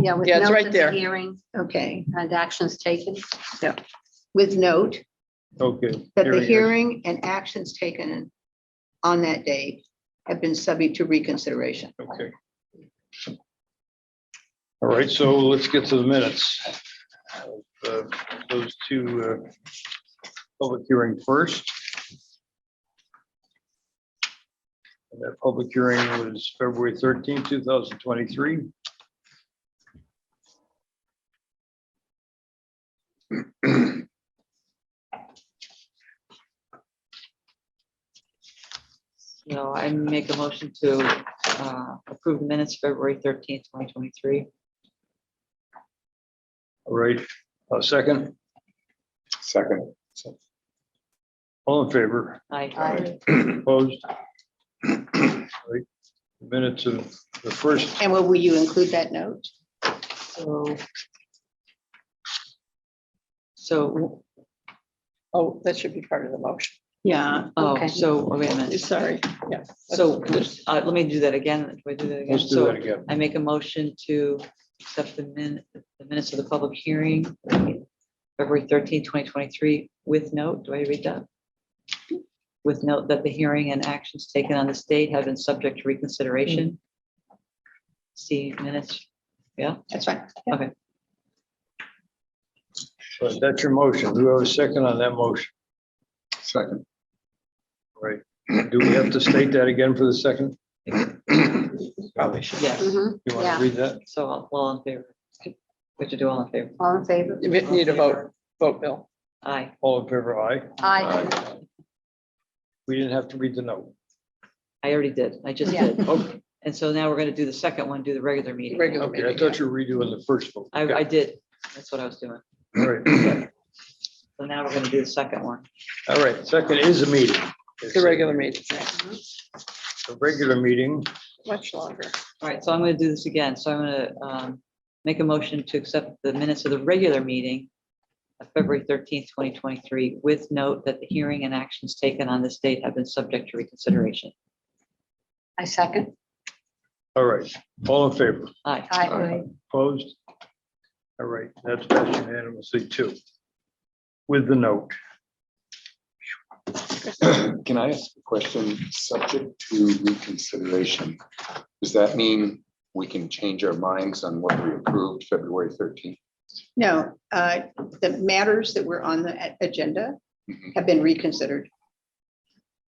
Yeah, with Yeah, it's note right of there. the hearing Okay, and actions taken. with note Okay. that the Hearing is- hearing and actions taken on that date have been subject to reconsideration. Okay. All right, so let's get to the minutes. Uh, Those two uh, public hearing first. And That public hearing was February 13, 2023. So I make a motion to uh, approve the minutes February thirteenth, twenty twenty-three. All right, a second, Second. all in favor, I, opposed? All right, Minutes of the first, And will will you include that note? so. So, Oh, that should be part of the motion. yeah, oh, Okay. so, wait a minute, Sorry, yeah. so, uh, let me do that again, Can we do that again? let's do that So again. I make a motion to accept the min, the minutes of the public hearing, February 13th, 2023, with note, do I read that? With note that the hearing and actions taken on this date have been subject to reconsideration. See minutes, That's fine. So That's your motion. Do we have a second on that motion? Second. Right. Do we have to state that again for the second? Probably should. yes, Mhm. You want Yeah. to read that? so all- all in favor. We have to do all in favor. All in favor? You need a vote, vote, Bill. Aye, All in favor, aye. Aye. We didn't have to read the note. I already did, I just Yeah. did. Oh, Okay, And so now we're gonna do the second one, do the regular meeting. Regular. okay, I thought you were redoing the first vote. I, I did, that's what I was doing. All right, So now we're gonna do the second one. all right. Second is a meeting. It's a regular meeting, A regular meeting. much longer. All right, so I'm going to do this again. So I'm going to make a motion to accept the minutes of the regular meeting of February thirteenth, twenty twenty-three, with note that the hearing and actions taken on this date have been subject to reconsideration. I second. All right, all in favor, Aye. Aye. opposed? All right, that's passed unanimously too. With the note. Can I ask a question? Subject to reconsideration, does that mean we can change our minds on what we approved February thirteenth? No, uh, the matters that were on the a- agenda Mm-hmm. have been reconsidered.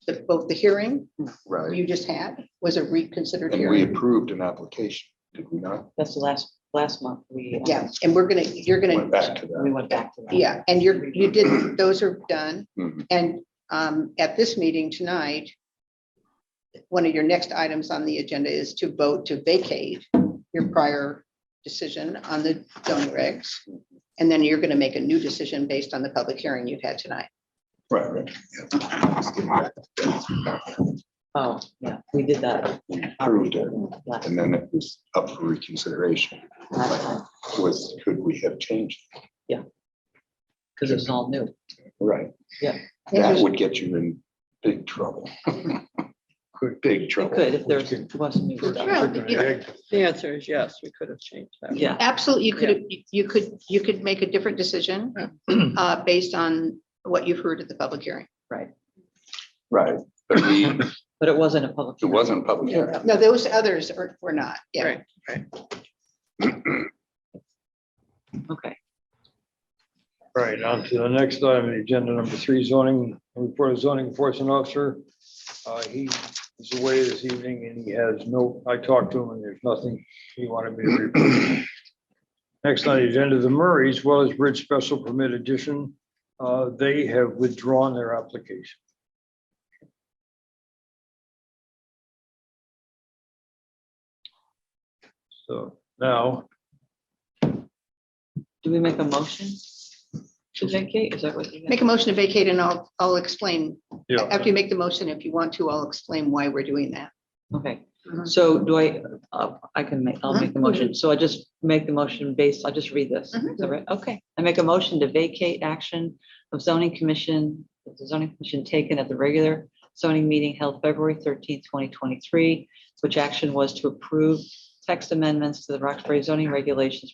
The- Both the hearing Right, you just had was a reconsidered and we hearing. approved an application, did we not? That's the last, last month. We, uh, Yeah, and we're gonna, you're Went gonna, back to we that. went back to that. yeah, and you're, you did, those are done. Mm-hmm. Mhm. And um, at this meeting tonight, one of your next items on the agenda is to vote to vacate your prior decision on the zoning regs. And then you're going to make a new decision based on the public hearing you've had tonight. Right, right. yeah. Let's get back Oh, yeah, we did that to Approved it, last and then it was up for reconsideration, last time was, could we have changed? because it was all new. Right. Yeah. That would get you in big trouble. Big We trouble. could if there was- wasn't new stuff. The answer is yes, we could have changed that. Yeah, Absolutely, you could, you could, you could make a different decision uh, based on what you've heard at the public hearing. Right, but we, but it wasn't a public. it hearing. wasn't public hearing. No, those others are, were not, yeah. Right. Okay, Right, on to the next item, the agenda number three, zoning, report of zoning enforcement officer. Uh, he is away this evening and he has no, I talked to him and there's nothing he wanted me to report. Next on the agenda, the Murray's Wells Bridge Special Permit Edition, uh, they have withdrawn their application. So now, do we make a motion to vacate? Is that what? you Make a motion to vacate and I'll, I'll explain. yeah, After you make the motion, if you want to, I'll explain why we're doing that. Okay, Mhm. so do I, uh, I can make, I'll make the motion, so I just make the motion based, I'll just read this. Is that right? Okay, I make a motion to vacate action of zoning commission, the zoning commission taken at the regular zoning meeting held February thirteenth, twenty twenty-three, which action was to approve text amendments to the Roxbury zoning regulations